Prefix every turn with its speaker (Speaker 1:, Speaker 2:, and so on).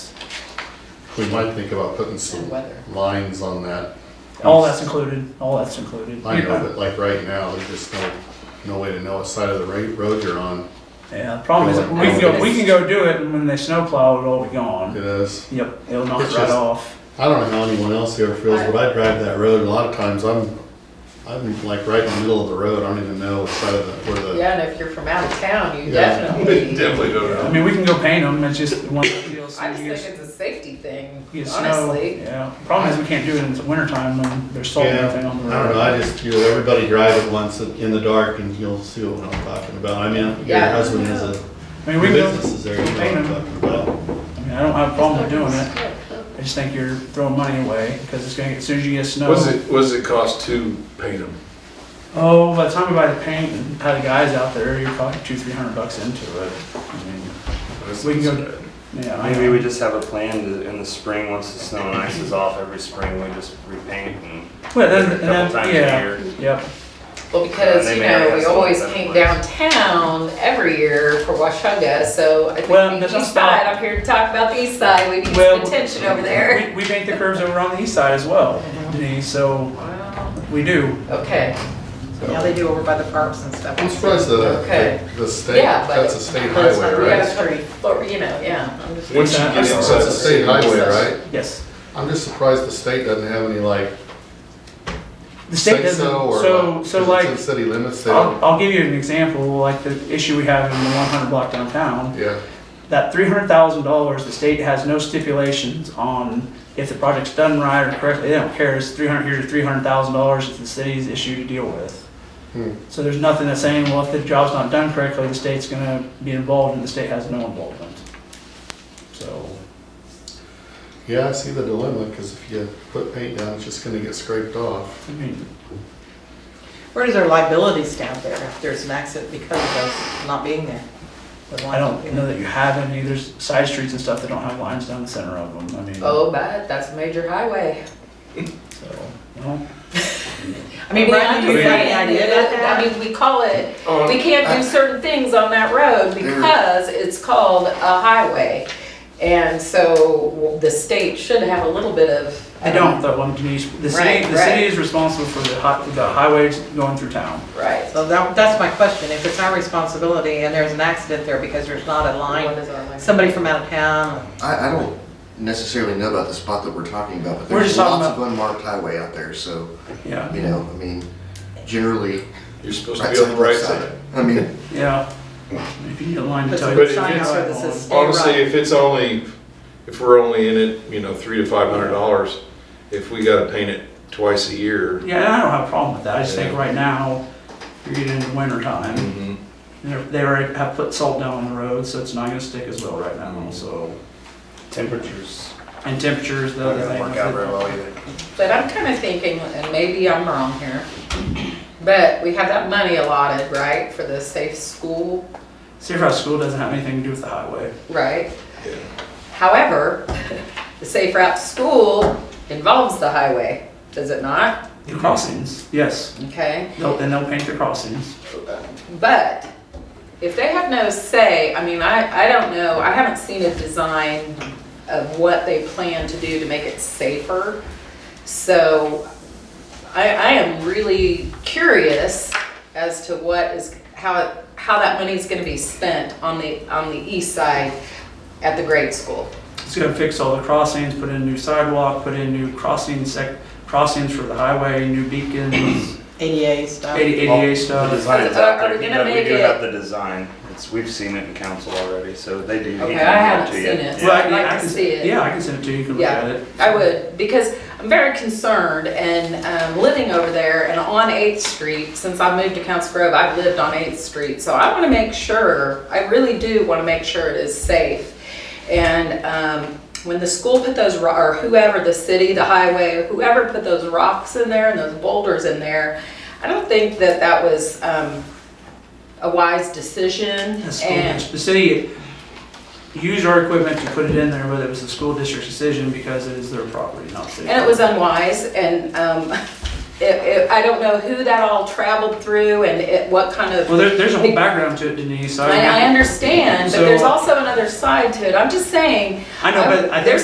Speaker 1: we might think about putting
Speaker 2: and
Speaker 1: some
Speaker 2: weather.
Speaker 1: lines on that.
Speaker 3: All that's included, all that's included.
Speaker 1: I know, but like right now, there's just no, no way to know what side of the ra- road you're on.
Speaker 3: Yeah, the problem is, that we can
Speaker 1: "Oh,
Speaker 3: go, we can go do it, and when they snowplow, it'll all be
Speaker 1: It
Speaker 3: gone.
Speaker 1: is,
Speaker 3: Yep, it'll knock
Speaker 1: It's
Speaker 3: it right
Speaker 1: just-
Speaker 3: off.
Speaker 1: I don't know how anyone else here feels, but I drive that road, a lot of times I'm, I'm like right in the middle of the road, I don't even know what side of the, where the,
Speaker 2: Yeah, and if you're from out of town, you
Speaker 1: Yeah.
Speaker 2: definitely.
Speaker 4: Definitely don't
Speaker 3: I
Speaker 4: know.
Speaker 3: mean, we can go paint them, it's just one of the deals.
Speaker 2: I just
Speaker 3: you
Speaker 2: think
Speaker 3: get-
Speaker 2: it's a safety thing,
Speaker 3: you get snow.
Speaker 2: honestly.
Speaker 3: Yeah, problem is, we can't do it in the wintertime when there's salt and
Speaker 1: Yeah,
Speaker 3: everything on the road.
Speaker 1: I don't know, I just, you know, everybody drive it once in the dark and you'll see what I'm talking about. I mean, your
Speaker 2: Yeah.
Speaker 1: husband has a
Speaker 3: I mean, we can go,
Speaker 1: business, is there, you know what I'm talking about?
Speaker 3: I mean, I don't have a problem with doing it, I just think you're throwing money away, because it's gonna, as soon as you get snow.
Speaker 4: What's it, what does it cost to paint them?
Speaker 3: Oh, by the time we buy the paint and have the guys out there, you're probably two, three hundred bucks into it. I mean, We can go- Yeah, I
Speaker 5: Maybe we just have a plan to, in the spring, once the snow and ice is off, every spring we just repaint and.
Speaker 3: Well, then,
Speaker 5: a
Speaker 3: and
Speaker 5: couple
Speaker 3: then,
Speaker 5: times a
Speaker 3: yeah,
Speaker 5: year.
Speaker 3: yep,
Speaker 2: Well, because,
Speaker 5: they
Speaker 2: you
Speaker 5: may
Speaker 2: know,
Speaker 5: already have
Speaker 2: we
Speaker 5: some
Speaker 2: always
Speaker 5: other
Speaker 2: came
Speaker 5: place.
Speaker 2: downtown every year for Washunga, so I think
Speaker 3: Well,
Speaker 2: the
Speaker 3: that's
Speaker 2: east
Speaker 3: not-
Speaker 2: side, I'm here to talk about the east side, we need
Speaker 3: Well-
Speaker 2: some attention over there.
Speaker 3: we, we paint the curves over on the east side as well, Denise, so
Speaker 2: Wow,
Speaker 3: we do.
Speaker 2: okay,
Speaker 6: Yeah, they do over by the parks and stuff.
Speaker 1: I'm surprised the,
Speaker 2: Okay.
Speaker 1: the state,
Speaker 2: yeah, but.
Speaker 1: that's a state
Speaker 2: that's
Speaker 1: highway,
Speaker 2: not- we
Speaker 1: right?
Speaker 2: gotta put- but, you know, yeah, I'm just.
Speaker 4: Once you get
Speaker 3: That's
Speaker 4: inside
Speaker 1: That's
Speaker 4: the
Speaker 1: a state
Speaker 4: city.
Speaker 1: highway, right?
Speaker 3: Yes,
Speaker 1: I'm just surprised the state doesn't have any like
Speaker 3: the state
Speaker 1: say
Speaker 3: doesn't,
Speaker 1: so or
Speaker 3: so,
Speaker 1: like,
Speaker 3: so
Speaker 1: 'cause it's in
Speaker 3: like,
Speaker 1: city limits, they don't,
Speaker 3: I'll, I'll give you an example, like the issue we have in the one hundred block downtown.
Speaker 1: yeah.
Speaker 3: That three hundred thousand dollars, the state has no stipulations on if the project's done right or correctly, they don't care, it's three hundred, here's three hundred thousand dollars, it's the city's issue to deal with.
Speaker 1: Hmm.
Speaker 3: So there's nothing that's saying, well, if the job's not done correctly, the state's gonna be involved, and the state has no involvement. So.
Speaker 1: Yeah, I see the dilemma, because if you put paint down, it's just gonna get scraped off.
Speaker 3: I mean,
Speaker 6: Where does our liability stand there if there's an accident because of us not being there?
Speaker 3: I don't know that you have any, there's side streets and stuff that don't have lines down the center of them, I mean.
Speaker 2: Oh, but that's a major highway.
Speaker 3: So, well,
Speaker 6: I mean, Brian, do you have any idea about that?
Speaker 2: I mean, we call it, we can't do certain things on that road because it's called a highway. And so the state should have a little bit of.
Speaker 3: I don't, though, I'm Denise, the city,
Speaker 2: Um, Right,
Speaker 3: the city
Speaker 2: right.
Speaker 3: is responsible for the hi, the highways going through town.
Speaker 2: Right.
Speaker 6: So that, that's my question. If it's our responsibility and there's an accident there because there's not a
Speaker 2: What
Speaker 6: line,
Speaker 2: is our language?
Speaker 6: somebody from out of town,
Speaker 7: I, I don't necessarily know about the spot that we're talking about, but
Speaker 3: We're
Speaker 7: there's
Speaker 3: just talking
Speaker 7: lots of unmarked highway out there, so,
Speaker 3: Yeah,
Speaker 7: you know, I mean, generally.
Speaker 4: You're supposed to
Speaker 7: right
Speaker 4: be on the right
Speaker 7: left
Speaker 4: side.
Speaker 7: I mean,
Speaker 3: yeah. If you need a line to
Speaker 6: puts
Speaker 3: tell
Speaker 6: a
Speaker 3: you.
Speaker 4: But
Speaker 6: big
Speaker 4: if
Speaker 6: sign
Speaker 4: it's-
Speaker 6: out there that says stay
Speaker 4: Honestly,
Speaker 6: right.
Speaker 4: if it's only, if we're only in it, you know, three to five hundred dollars, if we gotta paint it twice a year.
Speaker 3: Yeah, and I don't have a problem with that. I just think
Speaker 4: Yeah.
Speaker 3: right now, you're getting into winter time.
Speaker 4: Mhm.
Speaker 3: They're- They already have put salt down on the road, so it's not gonna stick as well right now, so.
Speaker 5: Temperatures
Speaker 3: And temperatures, the other
Speaker 5: doesn't work out very
Speaker 3: thing.
Speaker 5: well either.
Speaker 2: But I'm kind of thinking, and maybe I'm wrong here, but we have that money allotted, right, for the safe school,
Speaker 3: Safe Route School doesn't have anything to do with the highway.
Speaker 2: right?
Speaker 4: Yeah.
Speaker 2: However, the safe route to school involves the highway, does it not?
Speaker 3: The crossings, yes.
Speaker 2: Okay.
Speaker 3: They'll, then they'll paint the crossings.
Speaker 2: But if they have no say, I mean, I, I don't know, I haven't seen a design of what they plan to do to make it safer. So I, I am really curious as to what is, how, it- how that money's gonna be spent on the, on the east side at the grade school.
Speaker 3: It's gonna fix all the crossings, put in new sidewalk, put in new crossing sec, crossings for the highway, new beacons,
Speaker 6: ADA stuff.
Speaker 3: ADA
Speaker 5: The
Speaker 3: stuff.
Speaker 5: design's
Speaker 2: Are-
Speaker 5: out
Speaker 2: are
Speaker 5: there,
Speaker 2: we
Speaker 5: we
Speaker 2: gonna
Speaker 5: do- we do
Speaker 2: make it-
Speaker 5: have the design, it's, we've seen it in council already, so they do. he
Speaker 2: Okay, I
Speaker 5: can give it
Speaker 2: haven't
Speaker 5: to you.
Speaker 2: seen it.
Speaker 5: Yeah.
Speaker 3: Well, I
Speaker 2: I'd
Speaker 3: mean,
Speaker 2: like
Speaker 3: I
Speaker 2: to
Speaker 3: can-
Speaker 2: see it.
Speaker 3: Yeah, I can send it to you, you can look at
Speaker 2: Yeah,
Speaker 3: it.
Speaker 2: I would, because I'm very concerned and um, living over there and on 8th Street, since I moved to Council Grove, I've lived on 8th Street. So I want to make sure, I really do want to make sure it is safe. And um, when the school put those, ro- or whoever, the city, the highway, whoever put those rocks in there and those boulders in there, I don't think that that was um, a wise decision.
Speaker 3: The school,
Speaker 2: And
Speaker 3: the city used our equipment to put it in there, but it was the school district's decision because it is their property, not city.
Speaker 2: And it was unwise, and um, it- it- I don't know who that all traveled through and it- what kind of,
Speaker 3: Well, there, there's a whole background to it, Denise.
Speaker 2: I I understand, but there's
Speaker 3: So-
Speaker 2: also another side to it. I'm just saying, um,
Speaker 3: I know, but I
Speaker 2: there's
Speaker 3: think